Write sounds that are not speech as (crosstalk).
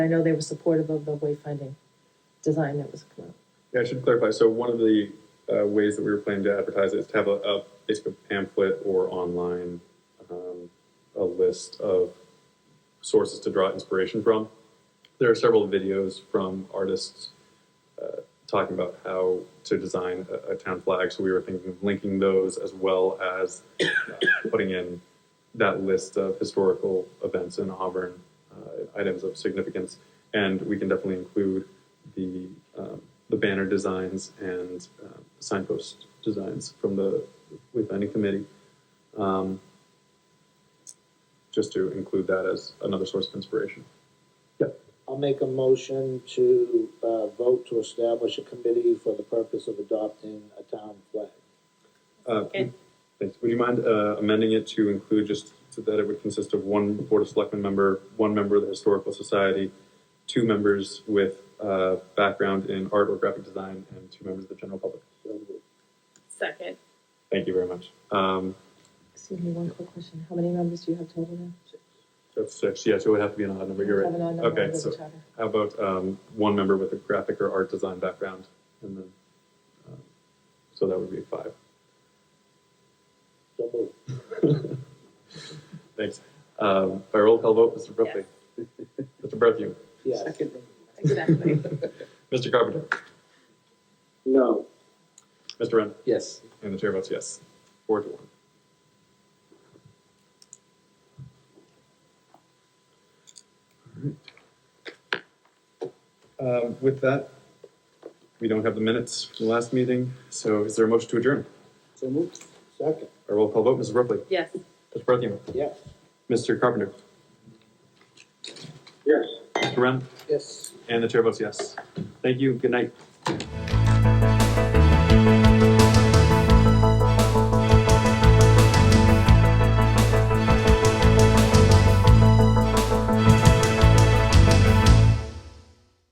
I know they were supportive of the wayfinding design that was come out. Yeah, I should clarify. So one of the uh, ways that we were planning to advertise it is to have a, a basically a pamphlet or online um, a list of sources to draw inspiration from. There are several videos from artists uh, talking about how to design a, a town flag. So we were thinking of linking those as well as uh, putting in that list of historical events in Auburn, uh, items of significance, and we can definitely include the um, the banner designs and uh, signpost designs from the wayfinding committee, um, just to include that as another source of inspiration. I'll make a motion to uh, vote to establish a committee for the purpose of adopting a town flag. Uh, Okay. Thanks. Would you mind uh, amending it to include just so that it would consist of one Board of Selectmen member, one member of the Historical Society, two members with uh, background in art or graphic design, and two members of the general public? So moved. Second. Thank you very much. Um, Excuse me, one quick question. How many members do you have total now? that's six. Yes, it would have to be an odd number. You're Have an right. odd number Okay, under the so- charter. How about um, one member with a graphic or art design background, and then um, so that would be five. (laughs) So moved. Thanks. Um, by roll call vote, Mr. Brophy. (laughs) Mr. Berthew. Yes. Exactly. (laughs) Mr. Carpenter. No. Mr. Wren. Yes. And the chair votes yes. Four to one. Alright. Um, With that, we don't have the minutes from the last meeting, so is there a motion to adjourn? So moved. Second. Our roll call vote, Mrs. Ripley. Yes. Mr. Berthew. Yes. Mr. Carpenter. Yes. Mr. Wren. Yes. And the chair votes yes. Thank you. Good night.